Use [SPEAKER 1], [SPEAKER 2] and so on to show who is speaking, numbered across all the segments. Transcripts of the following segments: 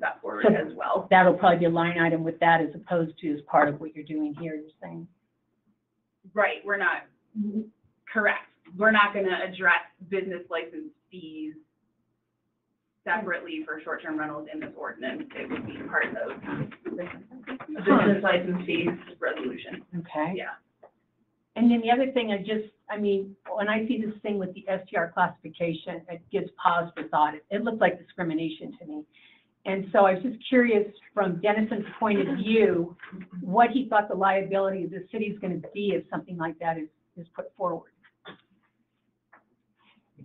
[SPEAKER 1] that forward as well.
[SPEAKER 2] That'll probably be a line item with that as opposed to as part of what you're doing here, you're saying.
[SPEAKER 1] Right, we're not, correct. We're not going to address business license fees separately for short-term rentals in this ordinance. It would be part of the business license fees resolution.
[SPEAKER 2] Okay.
[SPEAKER 1] Yeah.
[SPEAKER 2] And then the other thing I just, I mean, when I see this thing with the STR classification, it gives pause for thought. It- It looked like discrimination to me. And so I was just curious from Dennison's point of view, what he thought the liability of the city is going to be if something like that is, is put forward.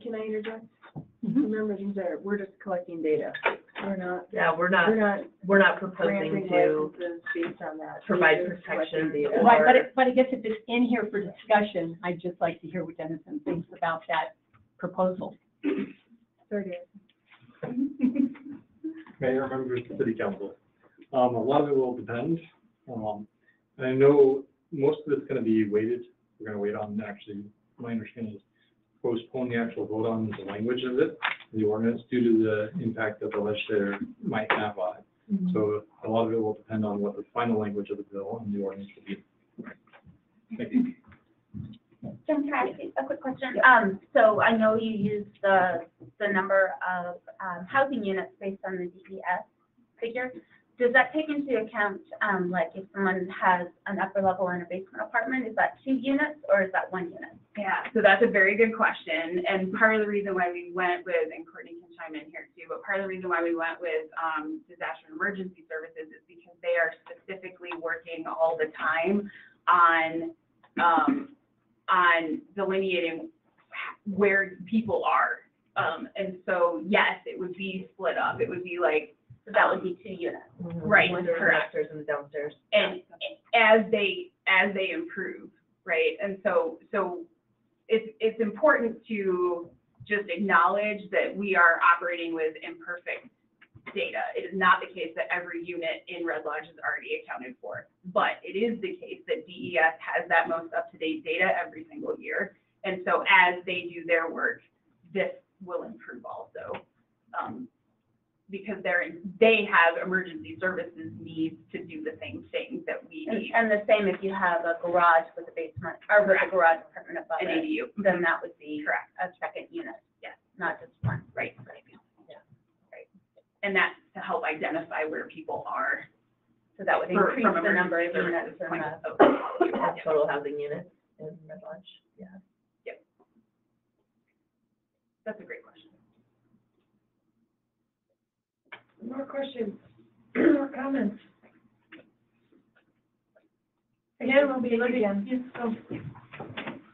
[SPEAKER 3] Can I interject?
[SPEAKER 4] Mm-hmm.
[SPEAKER 2] Mhm.
[SPEAKER 3] Remember, these are, we're just collecting data. We're not,
[SPEAKER 4] Yeah, we're
[SPEAKER 3] we're
[SPEAKER 4] not,
[SPEAKER 3] not
[SPEAKER 4] we're not
[SPEAKER 3] granting
[SPEAKER 4] proposing Ah, to,
[SPEAKER 3] licenses based on that.
[SPEAKER 4] provide
[SPEAKER 3] We're just
[SPEAKER 4] protection
[SPEAKER 3] collecting
[SPEAKER 4] data.
[SPEAKER 2] Right, but it, but I guess if it's in here for discussion, I'd just like to hear what Dennison thinks about that proposal.
[SPEAKER 3] Sorry, Dan.
[SPEAKER 5] mayor, members of the city council. Um, a lot of it will depend. Um, and I know most of it's gonna be weighted. We're gonna wait on actually, my understanding is postpone the actual vote on the language of it, the ordinance, due to the impact that the legislator might have on it. So a lot of it will depend on what the final language of the bill and the ordinance will be. Thank you.
[SPEAKER 6] Jim, can I ask you a quick question? Um, so I know you used the, the number of, um, housing units based on the DES figure. Does that take into account, um, like if someone has an upper level and a basement apartment, is that two units or is that one unit?
[SPEAKER 1] Yeah, so that's a very good question, and part of the reason why we went with, and Courtney can chime in here too, but part of the reason why we went with, um, disaster and emergency services is because they are specifically working all the time on, um, on delineating where people are. Um, and so, yes, it would be split up, it would be like,
[SPEAKER 6] So that would be two units.
[SPEAKER 1] Right,
[SPEAKER 4] Windows
[SPEAKER 1] correct.
[SPEAKER 4] upstairs and downstairs.
[SPEAKER 1] and as they, as they improve, right? And so, so it's, it's important to just acknowledge that we are operating with imperfect data. It is not the case that every unit in Red Lodge is already accounted for. But it is the case that DES has that most up-to-date data every single year. And so as they do their work, this will improve also. Um, because they're, they have emergency services needs to do the same things that we
[SPEAKER 6] And,
[SPEAKER 1] need,
[SPEAKER 6] and the same if you have a garage with a basement, or with a
[SPEAKER 1] Correct.
[SPEAKER 6] garage apartment above
[SPEAKER 1] an
[SPEAKER 6] it,
[SPEAKER 1] ADU.
[SPEAKER 6] then that would be
[SPEAKER 1] Correct,
[SPEAKER 6] a second unit.
[SPEAKER 1] Yes.
[SPEAKER 6] Not just one.
[SPEAKER 1] right. Right. And that's to help identify where people are.
[SPEAKER 6] So that would
[SPEAKER 1] for-
[SPEAKER 6] increase
[SPEAKER 1] from
[SPEAKER 6] the number of
[SPEAKER 1] emergency
[SPEAKER 6] units
[SPEAKER 1] services
[SPEAKER 6] in
[SPEAKER 1] point
[SPEAKER 6] the
[SPEAKER 1] of-
[SPEAKER 4] Have Total housing units in Red Lodge, yeah.
[SPEAKER 1] That's a great question.
[SPEAKER 3] More questions, more comments? Again, we'll be looking,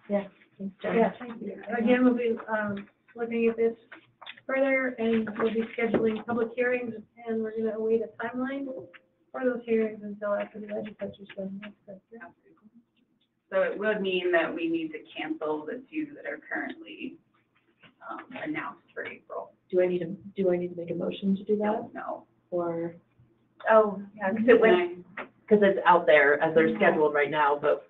[SPEAKER 3] yeah, again, we'll be, um, looking at this further, and we'll be scheduling public hearings, and we're gonna await a timeline for those hearings until after the legislature's done. That's good.
[SPEAKER 1] So it would mean that we need to cancel the two that are currently um, announced for April.
[SPEAKER 7] Do I need to, do I need to make a motion to do that,
[SPEAKER 1] No.
[SPEAKER 7] or?
[SPEAKER 6] Oh, yeah, because it went,
[SPEAKER 4] Because it's out there as they're scheduled right now, but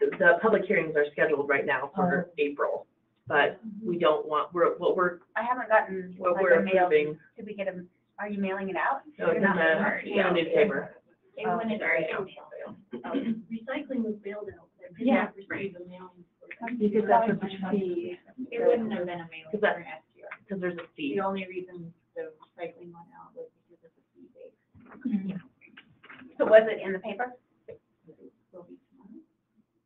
[SPEAKER 4] the, the public hearings are scheduled right now for April. But we don't want, we're, what we're,
[SPEAKER 6] I haven't gotten
[SPEAKER 4] what
[SPEAKER 6] like
[SPEAKER 4] we're
[SPEAKER 6] a mail.
[SPEAKER 4] approving,
[SPEAKER 6] Did we get a, are you mailing it out?
[SPEAKER 4] so it's in the, in the newspaper.
[SPEAKER 6] Everyone is
[SPEAKER 4] Sorry.
[SPEAKER 7] Recycling was bailed out.
[SPEAKER 2] Uh, Yeah.
[SPEAKER 7] Because
[SPEAKER 3] that's
[SPEAKER 7] what fee. It wouldn't have been a mailing
[SPEAKER 4] Because that-
[SPEAKER 7] last year.
[SPEAKER 4] Because there's a fee.
[SPEAKER 7] The only reason the recycling went out was because of the fee base.
[SPEAKER 4] Mm-hmm.
[SPEAKER 6] So was it in the paper?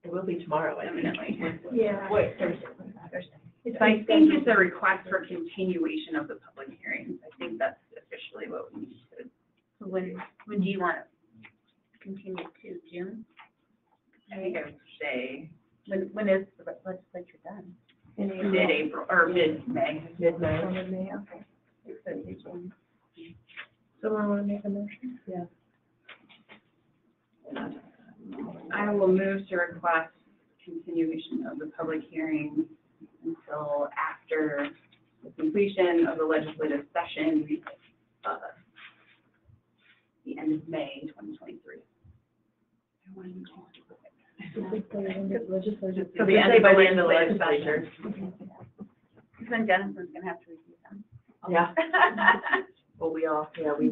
[SPEAKER 4] It will be tomorrow, I think.
[SPEAKER 1] Eminently.
[SPEAKER 3] Yeah.
[SPEAKER 4] Wait, Thursday.
[SPEAKER 1] I think it's a request for continuation of the public hearings. I think that's officially what we need to
[SPEAKER 6] So When, when do you want to continue to June?
[SPEAKER 1] I think I would say
[SPEAKER 6] When, when is the legislature done?
[SPEAKER 1] mid-April or mid-May.
[SPEAKER 4] Midnight.
[SPEAKER 3] Someone wanna make a motion?
[SPEAKER 1] I will move to request continuation of the public hearing until after the completion of the legislative session, uh, the end of May 2023.
[SPEAKER 3] Legislative.
[SPEAKER 4] So the end, by the end of the legislature.
[SPEAKER 6] Because then Dennison's going to have to review them.
[SPEAKER 4] Yeah. Well, we all, yeah, we